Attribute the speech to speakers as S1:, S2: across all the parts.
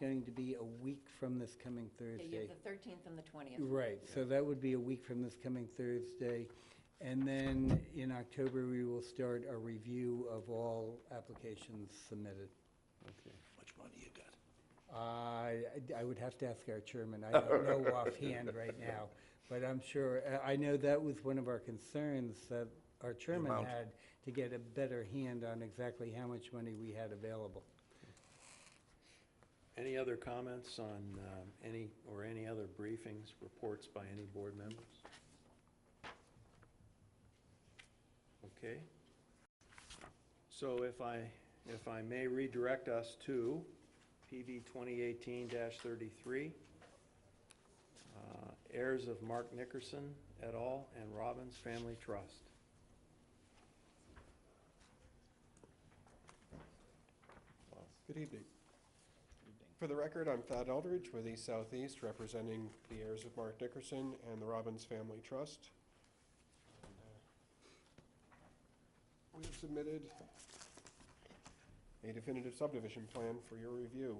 S1: going to be a week from this coming
S2: Yeah, you
S1: Thursday.
S2: have the thirteenth and the twentieth.
S1: Right, so that would be a week from this coming Thursday. And then in October, we will start a review of all applications submitted.
S3: Okay.
S4: Much money you got?
S1: I, I would have to ask our chairman, I don't know offhand right now, but I'm sure, I- I know that was one of our concerns that our chairman
S3: amount.
S1: had, to get a better hand on exactly how much money we had available.
S4: Any other comments on um, any, or any other briefings, reports by any board members? Okay. So if I, if I may redirect us to PV 2018-33, uh, heirs of Mark Nickerson et al. and Robbins Family Trust.
S5: Good evening. For the record, I'm Thad Eldridge with East Southeast, representing the heirs of Mark Dickerson and the Robbins Family Trust. uh, We have submitted a definitive subdivision plan for your review.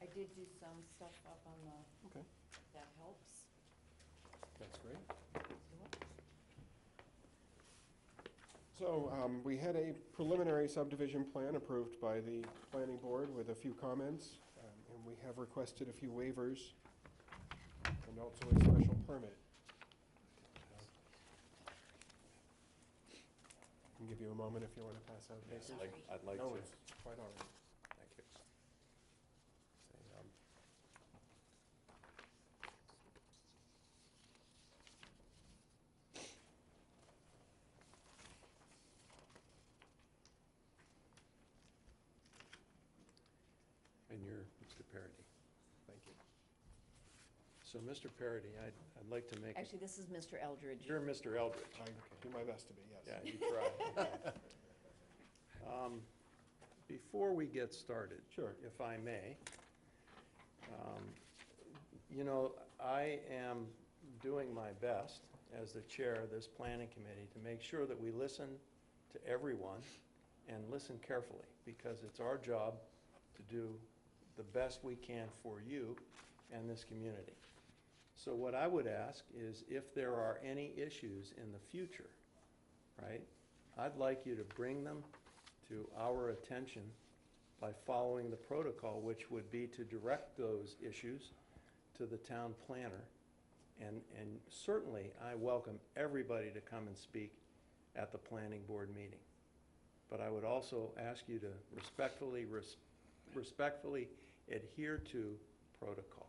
S2: I did do some stuff up on the,
S5: Okay.
S2: that helps.
S5: That's great. So um, we had a preliminary subdivision plan approved by the planning board with a few comments, um, and we have requested a few waivers and also a special permit. Can give you a moment if you want to pass out papers.
S4: I'd like
S5: No, it's quite all right.
S4: Thank you. um, And you're Mr. Parity.
S5: Thank you.
S4: So, Mr. Parity, I'd, I'd like to make, a-
S2: Actually, this is Mr. Eldridge.
S4: you're Mr. Eldridge.
S5: I do my best to be, yes.
S4: Yeah, you tried. Um, Before we get started.
S5: Sure.
S4: If I may. um, You know, I am doing my best as the chair of this planning committee to make sure that we listen to everyone and listen carefully, because it's our job to do the best we can for you and this community. So what I would ask is if there are any issues in the future, right? I'd like you to bring them to our attention by following the protocol, which would be to direct those issues to the town planner. And, and certainly, I welcome everybody to come and speak at the planning board meeting. But I would also ask you to respectfully, res- respectfully adhere to protocol.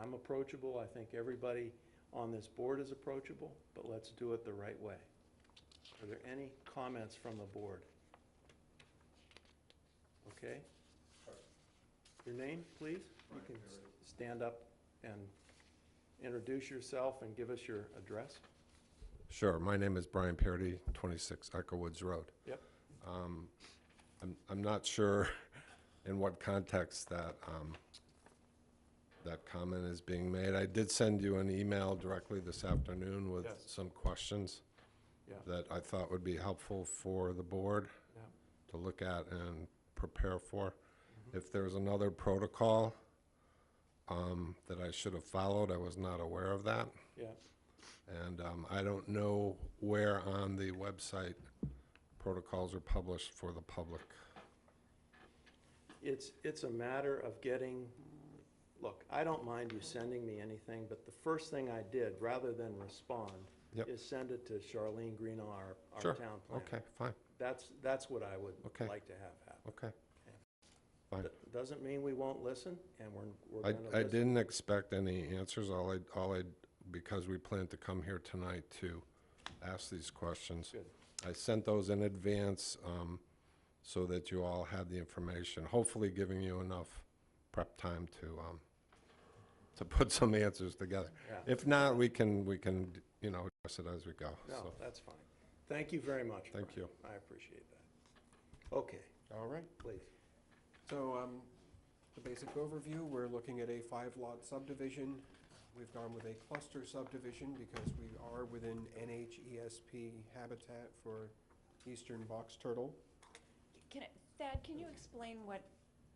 S4: I'm approachable, I think everybody on this board is approachable, but let's do it the right way. Are there any comments from the board? Okay? Your name, please? You can s- stand up and introduce yourself and give us your address.
S3: Sure, my name is Brian Parity, 26 Echo Woods Road.
S4: Yep.
S3: Um, I'm, I'm not sure in what context that, um, that comment is being made. I did send you an email directly this afternoon with
S4: Yes.
S3: some questions
S4: Yeah.
S3: that I thought would be helpful for the board
S4: Yeah.
S3: to look at and prepare for.
S4: Mm-hmm.
S3: If there's another protocol um, that I should have followed, I was not aware of that.
S4: Yeah,
S3: And um, I don't know where on the website protocols are published for the public.
S4: it's, it's a matter of getting, look, I don't mind you sending me anything, but the first thing I did, rather than respond,
S3: Yep.
S4: is send it to Charlene Greenlaw, our, our
S3: Sure,
S4: town planner.
S3: okay, fine,
S4: That's, that's what I would
S3: Okay.
S4: like to have happen.
S3: okay. Fine.
S4: That Doesn't mean we won't listen, and we're, we're gonna listen.
S3: I, I didn't expect any answers, all I, all I, because we plan to come here tonight to ask these questions.
S4: Good.
S3: I sent those in advance, um, so that you all had the information, hopefully giving you enough prep time to, um, to put some answers together.
S4: Yeah.
S3: If not, we can, we can, you know, address it as we go, so.
S4: No, that's fine. Thank you very much.
S3: Thank
S4: Brian. I appreciate that. Okay,
S5: All right.
S4: please.
S5: So, um, the basic overview, we're looking at a five-lot subdivision. We've gone with a cluster subdivision because we are within E NHESP habitat for eastern box turtle.
S2: Can, I- Thad, can you explain what